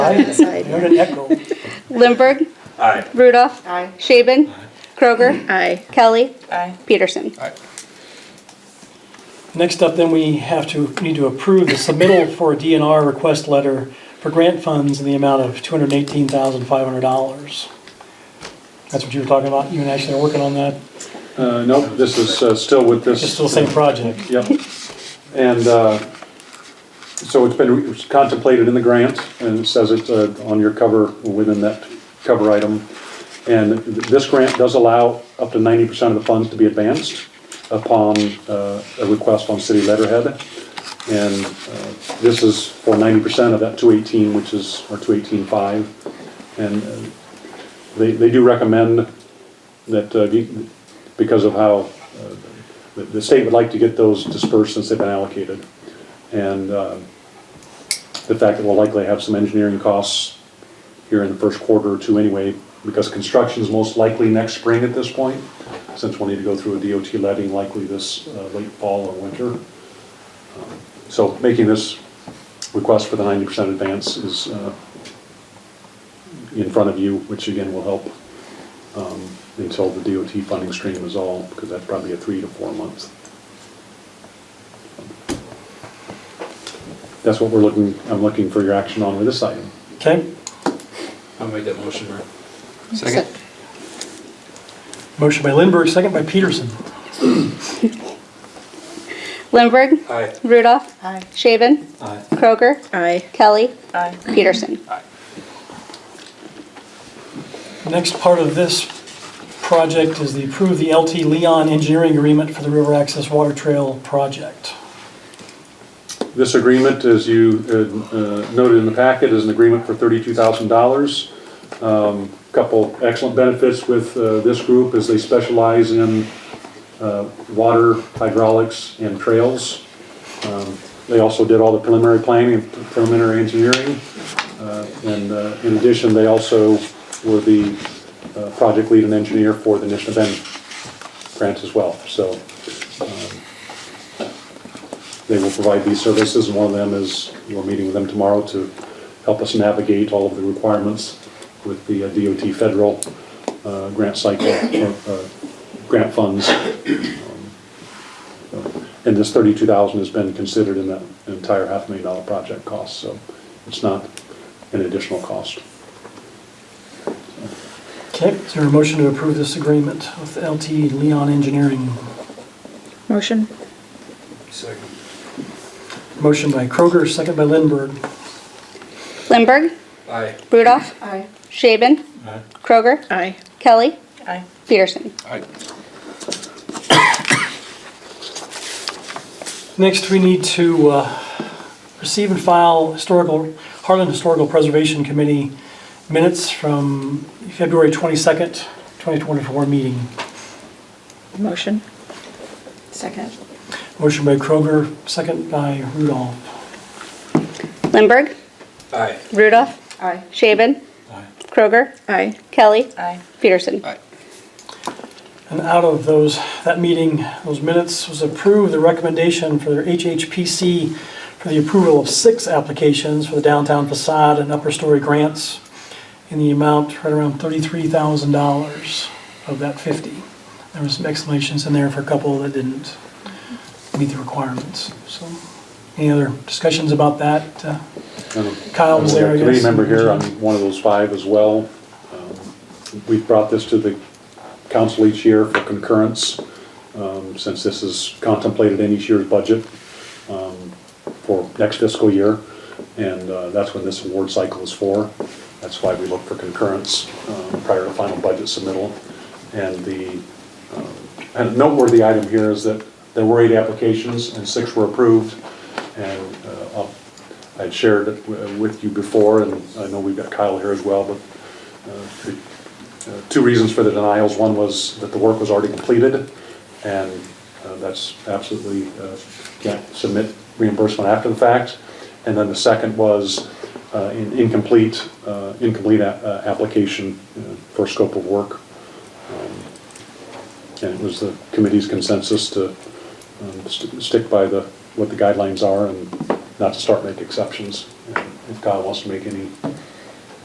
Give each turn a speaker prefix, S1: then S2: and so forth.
S1: I heard an echo.
S2: Lindberg.
S3: Aye.
S2: Rudolph.
S4: Aye.
S2: Shaven. Kroger.
S4: Aye.
S2: Kelly.
S4: Aye.
S2: Peterson.
S1: Next up, then, we have to, need to approve the submittal for a DNR request letter for grant funds in the amount of $218,500. That's what you were talking about, you and Ashley are working on that,
S3: Uh, nope, this is uh, still with this.
S1: it's still the same project.
S3: Yep. And, uh, so it's been it's contemplated in the grant, and it says it, uh, on your cover, within that cover item. And this grant does allow up to ninety percent of the funds to be advanced upon, uh, a request on city letterhead. And, uh, this is for ninety percent of that two eighteen, which is, or two eighteen five. And uh, they, they do recommend that, uh, you- because of how uh, the- the state would like to get those dispersed since they've been allocated. And uh, the fact that we'll likely have some engineering costs here in the first quarter or two anyway, because construction's most likely next spring at this point, since we'll need to go through a DOT letting likely this uh, late fall or winter. Um, So making this request for the ninety percent advance is uh, in front of you, which again will help um, until the DOT funding stream is all, because that's probably a three to four months. That's what we're looking, I'm looking for your action on with this item.
S1: Okay,
S5: I'll make that motion, Mayor.
S2: Second.
S1: motion by Lindberg, second by Peterson.
S2: Lindberg.
S5: Aye.
S2: Rudolph.
S4: Aye.
S2: Shaven.
S5: Aye.
S2: Kroger.
S4: Aye.
S2: Kelly.
S4: Aye.
S2: Peterson.
S1: Next part of this project is the approve the LT Leon engineering agreement for the River Access Water Trail project.
S3: This agreement, as you uh, uh, noted in the packet, is an agreement for thirty-two thousand dollars. Um, Couple excellent benefits with uh, this group is they specialize in uh, water, hydraulics, and trails. Um, They also did all the preliminary planning and preliminary engineering. Uh, And uh, in addition, they also were the uh, project lead and engineer for the Nishna Bend grant as well. So they will provide these services, and one of them is, we're meeting with them tomorrow to help us navigate all of the requirements with the uh, DOT federal uh, grant cycle, or, uh, grant funds. Um, And this thirty-two thousand has been considered in that entire half million dollar project cost, so it's not an additional cost.
S1: Okay, is there a motion to approve this agreement with LT Leon Engineering?
S4: Motion?
S5: Second.
S1: Motion by Kroger, second by Lindberg.
S2: Lindberg.
S5: Aye.
S2: Rudolph.
S4: Aye.
S2: Shaven.
S5: Aye.
S2: Kroger.
S4: Aye.
S2: Kelly.
S4: Aye.
S2: Peterson.
S5: Aye.
S1: Next, we need to uh, receive and file historical, Harlan Historical Preservation Committee minutes from February 22nd, 2024 meeting.
S4: Motion? Second.
S1: Motion by Kroger, second by Rudolph.
S2: Lindberg.
S5: Aye.
S2: Rudolph.
S4: Aye.
S2: Shaven.
S5: Aye.
S2: Kroger.
S4: Aye.
S2: Kelly.
S4: Aye.
S2: Peterson.
S5: Aye.
S1: And out of those, that meeting, those minutes was approved, the recommendation for their HHPC for the approval of six applications for the downtown facade and upper story grants in the amount right around $33,000 of that 50. There was some explanations in there for a couple that didn't meet the requirements. So any other discussions about that? Uh, Kyle was there, I guess.
S3: Committee member here on one of those five as well. Um, We've brought this to the council each year for concurrence, um, since this is contemplated in each year's budget um, for next fiscal year, and uh, that's when this award cycle is for. That's why we look for concurrence um, prior to final budget submittal. And the um, and a noteworthy item here is that there were eight applications and six were approved. And uh, I'll- I'd shared it wi- with you before, and I know we've got Kyle here as well, but uh, the, uh, two reasons for the denials. One was that the work was already completed, and uh, that's absolutely, uh, can't submit reimbursement after the fact. And then the second was uh, in- incomplete, uh, incomplete a- uh, application uh, for scope of work. Um, And it was the committee's consensus to um, st- stick by the, what the guidelines are and not to start making exceptions. And If Kyle wants to make any